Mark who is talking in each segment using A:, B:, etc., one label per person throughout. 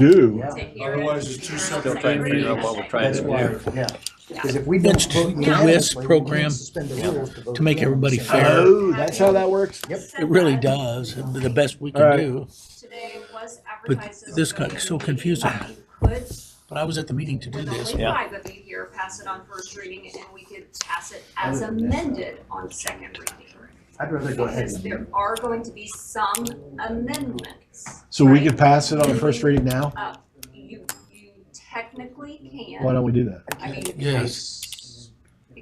A: do.
B: Yeah.
C: to hear it.
D: Otherwise, it's two
C: They'll
D: separate.
C: try and figure out
D: things.
C: what we're trying
B: That's
C: to
B: why,
C: do.
B: yeah. Because if we don't.
E: That's
B: vote
E: the list
B: unanimously, we can't
E: program
B: suspend the rules vote
E: to make everybody
B: unanimously.
E: fair.
A: Oh, that's how that works?
B: Yep.
E: It really does, the best we
A: All
E: can
A: right.
E: do.
C: Today was
E: But
C: advertised as
E: this
C: a
E: got so
C: meeting.
E: confusing.
C: You could,
E: But I was at the meeting to do
C: with
E: this.
C: only
F: Yeah.
C: five of you here, pass it on first reading, and we could pass it as amended on second reading.
B: I'd rather go ahead
C: Because there
B: and.
C: are going to be some amendments.
A: So we
C: right?
A: could pass it on first reading now?
C: Uh, You, you technically can.
A: Why don't we do that?
C: I mean,
E: Yes.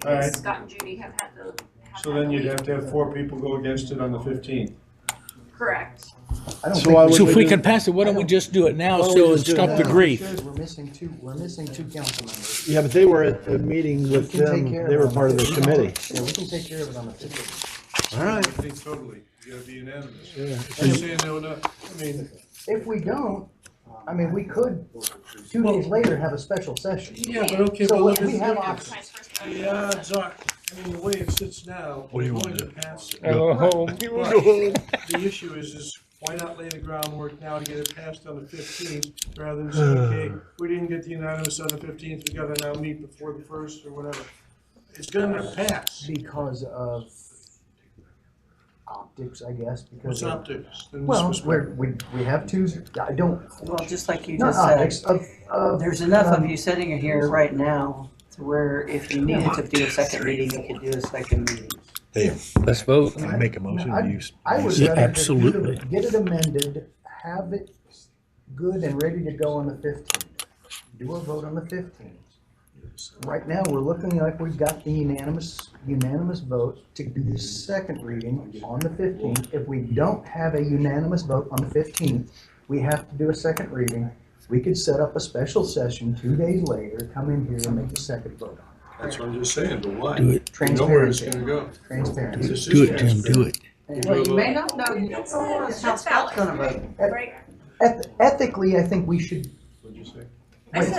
D: Alright.
C: because Scott and Judy have had the. have
D: So
C: had
D: then
C: the
D: you'd
C: lead.
D: have to have four people go against it on the fifteenth.
C: Correct.
B: I don't
A: So
B: think
A: why
B: we
A: would
E: So
B: should
E: if
A: we
E: we
A: do-
E: can pass it, why don't we just do it now
A: Why don't we
E: so and
A: just do it
E: stop
A: now?
E: the grief?
B: Because We're missing two, we're missing two council members.
A: Yeah, but they were at the meeting with
B: We can
A: them.
B: take care
A: They
B: it
A: were
B: on
A: part of the
B: 15th.
A: committee.
B: Yeah, we can take care of it on the fifteenth.
A: All
D: I
A: right.
D: think totally, you gotta be unanimous.
A: Yeah.
D: I'm saying no, no, I mean,
B: If we don't, I mean, we could, two days later, have a special session.
D: yeah, but okay,
B: So
D: but look
B: we- we have
D: at
B: options.
D: the odds are, I mean, the way it sits now,
F: What do you
D: we're
F: want
D: going
F: to
D: to
F: do?
D: pass it.
F: Go
E: home.
D: But The issue is, is why not lay the groundwork now to get it passed on the fifteenth, rather than say, okay, we didn't get the unanimous on the fifteenth, we gotta now meet before the first or whatever. It's gonna pass,
B: Because of optics, I guess, because.
D: it's
B: of-
D: optics. and this
B: Well,
D: was-
B: we're, we, we have two, I don't,
G: Well, just like you
B: not
G: just said,
B: optics, of, of.
G: there's enough of you sitting here right now to where if you needed to do a second reading, you could do a second reading.
F: Let's vote. I make a motion
B: I-
F: to use.
B: I would
E: Yeah,
B: rather just do the-
E: absolutely.
B: get it amended, have it good and ready to go on the fifteenth. Do a vote on the fifteenth. Right now, we're looking like we've got the unanimous, unanimous vote to do the second reading on the fifteenth. If we don't have a unanimous vote on the fifteenth, we have to do a second reading. We could set up a special session two days later, come in here and make the second vote on
D: That's what I'm just saying, but why?
E: Do it,
D: You know where it's gonna
B: transparency,
D: go.
B: transparency.
D: This is
E: do it, Tim, do it.
G: Well, you may not know, you don't know
C: That's
G: how Scott's gonna
C: valid.
G: vote.
C: Right?
B: Eth- Ethically, I think we should
D: What'd you say?
C: I said,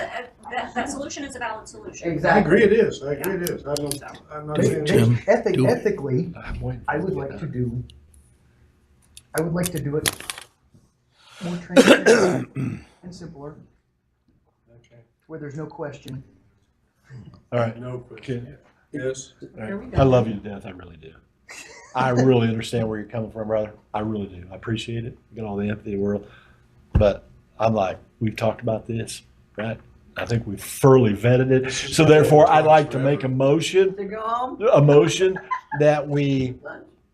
C: uh, that, that solution is a valid solution.
G: Exactly.
D: I agree it is, I agree it is, I don't, I'm not
B: They-
D: saying.
B: they-
E: Tim,
B: ethi-
E: do it.
B: Ethically, I would like to do, I would like to do it more transparent and simpler, where there's no question.
A: All right.
D: No question. Yes.
A: I love you to death. I really do. I really understand where you're coming from, brother. I really do. I appreciate it. You got all the empathy in the world. But I'm like, we've talked about this, right? I think we've thoroughly vetted it. So therefore, I'd like to make a motion,
G: To go home,
A: a motion that we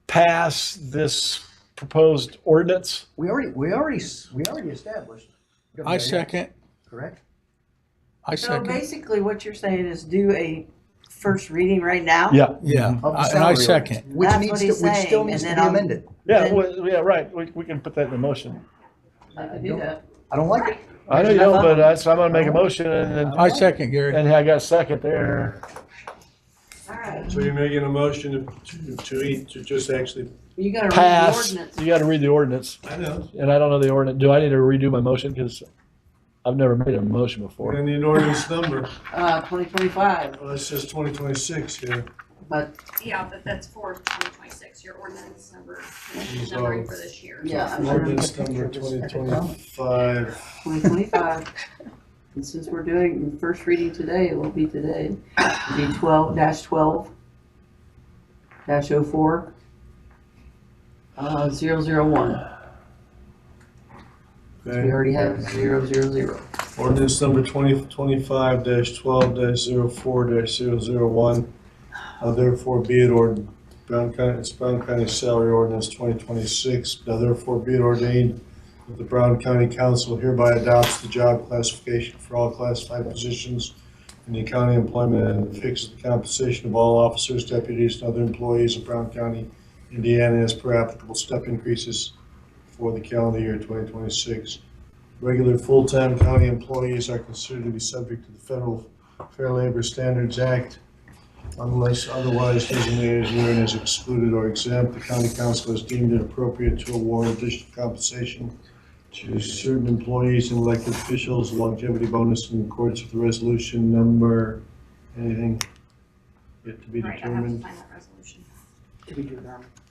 A: pass this proposed ordinance.
B: We already, we already, s- we already established.
E: I second,
B: Correct?
E: I
G: so
E: second.
G: basically what you're saying is do a first reading right now?
A: Yeah,
E: Yeah,
B: Of the
E: I- and I
B: salary ordinance,
E: second.
B: Which
G: That's
B: needs
G: what
B: to,
G: he's
B: which still
G: saying,
B: needs to
G: and then
B: be
G: I'll-
B: amended.
A: yeah, well, yeah, right. We, we can put that in the motion.
G: I could do that.
B: I don't like it.
A: I know you don't, but I, so I'm gonna make a motion and then,
E: I second, Gary.
A: and I got a second there.
G: All right,
D: So you're making a motion to, to eat, to just actually.
G: you gotta read the
A: Pass.
G: ordinance.
A: You gotta read the ordinance.
D: I know.
A: And I don't know the ordinance. Do I need to redo my motion? Because I've never made a motion before.
D: And the ordinance number,
G: Uh, twenty twenty-five,
D: well, it says twenty twenty-six here.
G: but
C: Yeah, but that's for twenty twenty-six, your ordinance number, numbering for this year.
G: yeah, I'm sure
D: Ordinance number twenty twenty-five.
G: twenty twenty-five. And since we're doing first reading today, it will be today, it'll be twelve dash twelve dash oh four, uh, zero zero one. We already have zero zero zero.
D: Ordinance number twenty twenty-five dash twelve dash zero four dash zero zero one. Now therefore be it ord, Brown County, it's Brown County Salary Ordinance twenty twenty-six. Now therefore be it ordained that the Brown County Council hereby adopts the job classification for all classified positions in the county employment and fixes the compensation of all officers, deputies, and other employees of Brown County, Indiana as per applicable step increases for the calendar year twenty twenty-six. Regular full-time county employees are considered to be subject to the Federal Fair Labor Standards Act unless otherwise designated herein as excluded or exempt. The county council has deemed it appropriate to award additional compensation to certain employees and elected officials longevity bonus in accordance with resolution number, anything yet to be
C: Right, I have to
D: determined.
C: find that resolution.
G: Did we do that?